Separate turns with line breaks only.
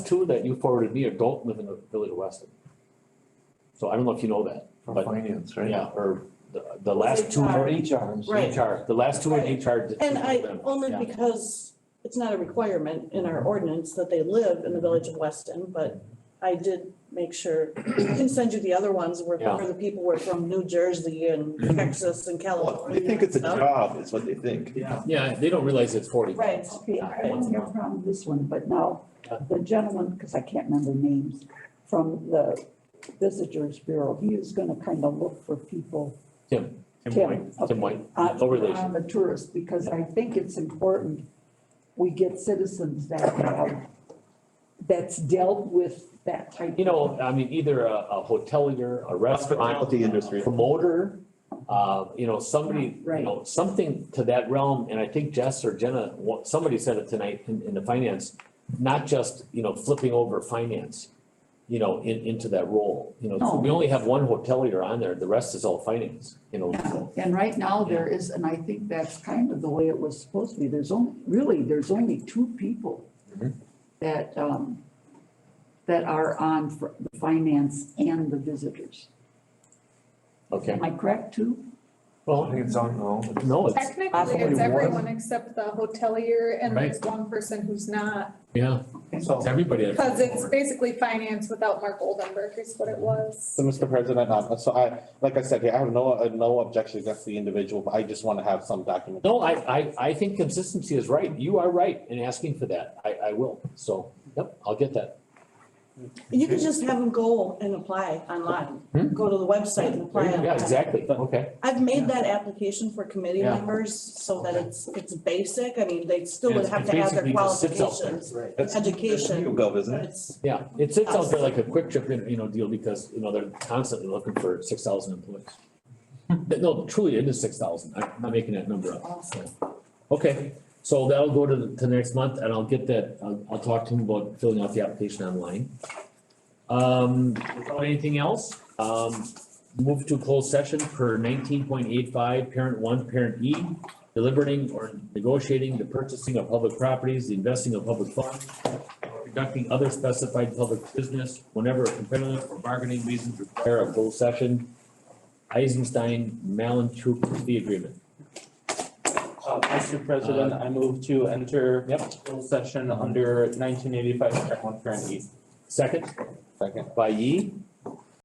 two that you forwarded me don't live in the village of Weston. So I don't know if you know that,
For
But-
finance, right?
yeah, or the, the last two
Or
are
HR.
HRs.
Right.
HR, the last two are
Right.
HR. that-
And I,
Yeah.
only because it's not a requirement in our ordinance that they live in the village of Weston, but I did make sure, I can send you the other ones where,
Yeah. Mm-hmm.
where the people were from New Jersey and Texas and
Well,
California.
They think it's a
and stuff.
job, is what they think.
Yeah, yeah, they don't realize it's forty.
Right,
Okay, I don't have a problem with this one, but now, the gentleman, because I can't remember names, from the Visitors Bureau, he is gonna kind of look for people.
Tim.
Tim. okay, Uh,
Tim White,
on-
no relation.
On the tourists, because I think it's important, we get citizens that have, that's dealt with that type.
You know, I mean, either a, a hotelier, a restaurant,
Hospitality industry.
promoter, uh, you know, somebody, you
Right.
know, something to that realm, and I think Jess or Jenna, wa- somebody said it tonight in, in the finance, not just, you know, flipping over finance, you know, in, into that role, you know, so
No.
we only have one hotelier on there, the rest is all finance, you know, so.
And right now, there is, and I think that's kind of the way it was supposed to be, there's only, really, there's only two people
Mhm.
that, um, that are on fr- the finance and the visitors.
Okay,
Am I correct, too?
I
well,
think it's on, no.
no, it's,
Technically,
Possibly
it's
one.
everyone except the hotelier and
Right.
there's one person who's not.
yeah, it's everybody. that's-
Cause it's basically finance without Mark Oldenburg is what it was.
So, Mr. President, um, so I, like I said, here, I have no, uh, no objection against the individual, but I just want to have some document.
No, I, I, I think consistency is right. You are right in asking for that. I, I will. So, yep, I'll get that.
you can just have them go and apply online,
Hmm?
go to the website and apply.
Yeah,
online.
exactly. Okay.
I've made that application for committee
Yeah.
members so that
Okay.
it's, it's basic, I mean, they still would
It's-
have
it
to add their
basically just sits out there.
qualifications,
Right. That's-
education.
YouGov, isn't
but
it?
it's-
Yeah, it sits out there like a quick trip, you know, deal because, you know, they're constantly looking for six thousand employees. No, truly, it is six thousand. I'm not making that number up.
Awesome.
Okay, so that'll go to the, to next month and I'll get that, I'll, I'll talk to him about filling out the application online. Um, without anything else, um, move to closed session per nineteen point eight five, parent one, parent E. Deliberating or negotiating the purchasing of public properties, the investing of public funds, or conducting other specified public business whenever a competitive or bargaining reasons require a closed session. Eisenstein, Malinchuk, the agreement.
Uh, Mr. President, I move to enter
Yep.
closed session under nineteen eighty-five, parent one, parent E.
Second?
Second.
by Yi.